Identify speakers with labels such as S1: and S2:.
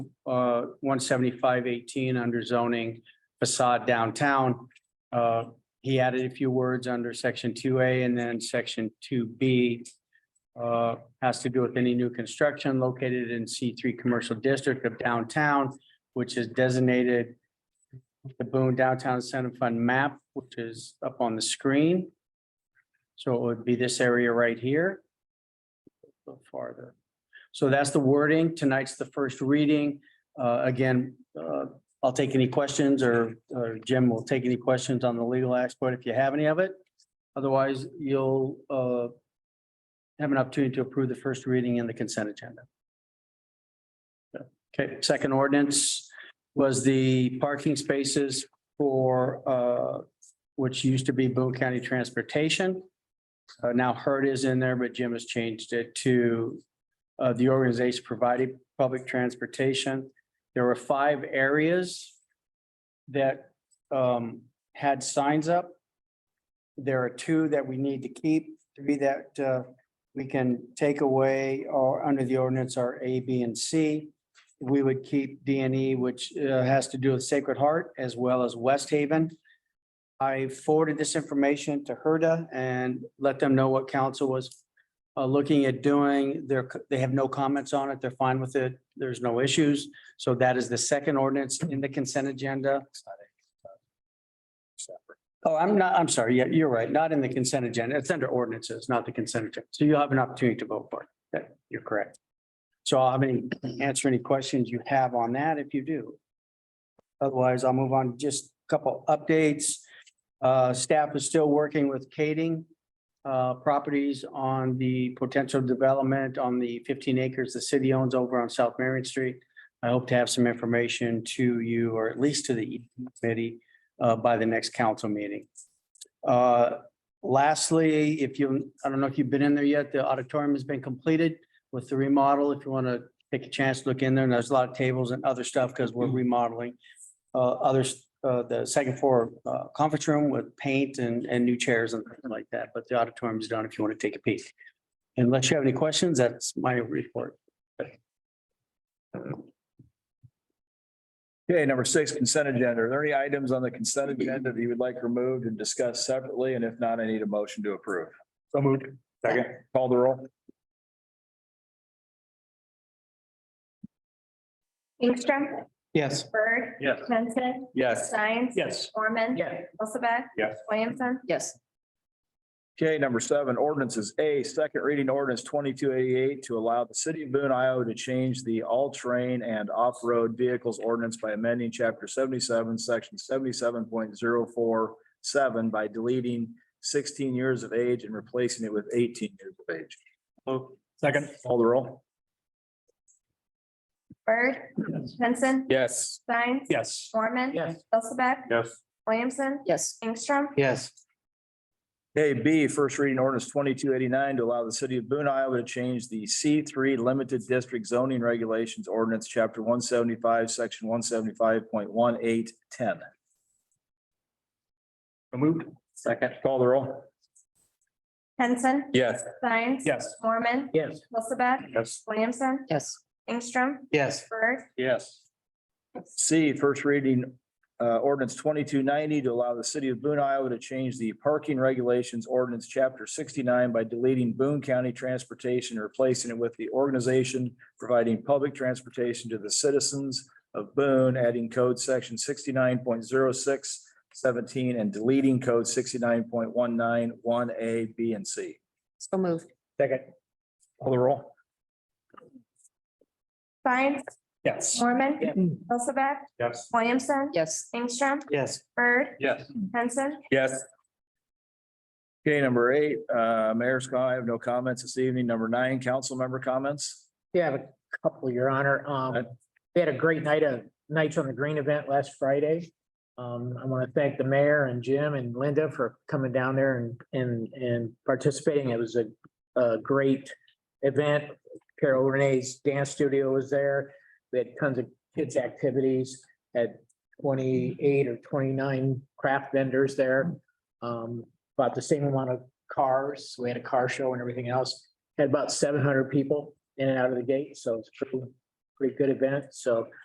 S1: uh, one seventy-five eighteen under zoning facade downtown. Uh, he added a few words under section two A and then section two B. Uh, has to do with any new construction located in C three commercial district of downtown, which is designated the Boone Downtown Center Fund map, which is up on the screen. So it would be this area right here. A little Farther. So that's the wording. Tonight's the first reading. Uh, again, uh, I'll take any questions or, or Jim will take any questions on the legal expert if you have any of it. Otherwise, you'll, uh, have an opportunity to approve the first reading and the consent agenda. Okay, second ordinance was the parking spaces for, uh, which used to be Boone County Transportation. Uh, now Hurt is in there, but Jim has changed it to uh, the organization provided public transportation. There were five areas that um, had signs up. There are two that we need to keep, three that uh, we can take away or under the ordinance are A, B, and C. We would keep D and E, which uh, has to do with Sacred Heart as well as West Haven. I forwarded this information to Herda and let them know what council was uh, looking at doing. They're, they have no comments on it. They're fine with it. There's no issues. So that is the second ordinance in the consent agenda. Oh, I'm not, I'm sorry. Yeah, you're right. Not in the consent agenda. It's under ordinances, not the consent agenda. So you'll have an opportunity to vote for it. That- You're correct. So I'll have any, answer any questions you have on that if you do. Otherwise, I'll move on to just a couple updates. Uh, staff is still working with Kading uh, properties on the potential development on the fifteen acres the city owns over on South Marion Street. I hope to have some information to you, or at least to the E committee, uh, by the next council meeting. Uh, lastly, if you, I don't know if you've been in there yet, the auditorium has been completed with the remodel. If you want to take a chance, look in there, and there's a lot of tables and other stuff because we're remodeling. Uh, others, uh, the second floor, uh, conference room with paint and, and new chairs and things like that, but the auditorium's done if you want to take a peek. Unless you have any questions, that's my report.
S2: Okay, number six, consent agenda. Are there any items on the consent agenda that you would like removed and discussed separately? And if not, I need a motion to approve. So moved. Second. Call the roll.
S3: Ingstrom,
S1: Yes.
S3: Bird.
S2: Yes.
S3: Henson.
S2: Yes.
S3: Science.
S2: Yes.
S3: Mormon.
S4: Yes.
S3: Elizabeth.
S2: Yes.
S3: Williamson.
S4: Yes.
S2: Okay, number seven, ordinances. A, second reading ordinance twenty-two eighty-eight to allow the city of Boone, Iowa to change the all-terrain and off-road vehicles ordinance by amending chapter seventy-seven, section seventy-seven point zero four seven by deleting sixteen years of age and replacing it with eighteen years of age. Second. Call the roll.
S3: Bird. Henson.
S2: Yes.
S3: Science.
S2: Yes.
S3: Mormon.
S4: Yes.
S3: Elizabeth.
S2: Yes.
S3: Williamson.
S4: Yes.
S3: Ingstrom.
S1: Yes.
S2: Okay, B, first reading ordinance twenty-two eighty-nine to allow the city of Boone, Iowa to change the C three limited district zoning regulations ordinance, chapter one seventy-five, section one seventy-five point one eight ten. Moved. Second. Call the roll.
S3: Henson.
S2: Yes.
S3: Science.
S2: Yes.
S3: Mormon.
S1: Yes.
S3: Elizabeth.
S2: Yes.
S3: Williamson.
S4: Yes.
S3: Ingstrom.
S1: Yes.
S3: Bird.
S2: Yes. C, first reading uh, ordinance twenty-two ninety to allow the city of Boone, Iowa to change the parking regulations ordinance, chapter sixty-nine by deleting Boone County Transportation, and replacing it with the organization providing public transportation to the citizens of Boone, adding code section sixty-nine point zero six seventeen and deleting code sixty-nine point one nine one A, B, and C.
S4: So moved.
S2: Second. Call the roll.
S3: Science.
S2: Yes.
S3: Mormon.
S4: Yes.
S3: Elizabeth.
S2: Yes.
S3: Williamson.
S4: Yes.
S3: Ingstrom.
S1: Yes.
S3: Bird.
S2: Yes.
S3: Henson.
S2: Yes. Okay, number eight, uh, Mayor Scott, I have no comments this evening. Number nine, council member comments.
S5: Yeah, I have a couple, Your Honor.
S2: Okay.
S5: Um, we had a great night of Nights on the Green event last Friday. Um, I want to thank the mayor and Jim and Linda for coming down there and, and, and participating. It was a, a great event. Carol Renee's dance studio was there. We had tons of kids' activities, had twenty-eight or twenty-nine craft vendors there. Um, about the same amount of cars. We had a car show and everything else. Had about seven hundred people in and out of the gate, so it's pretty, pretty good event, so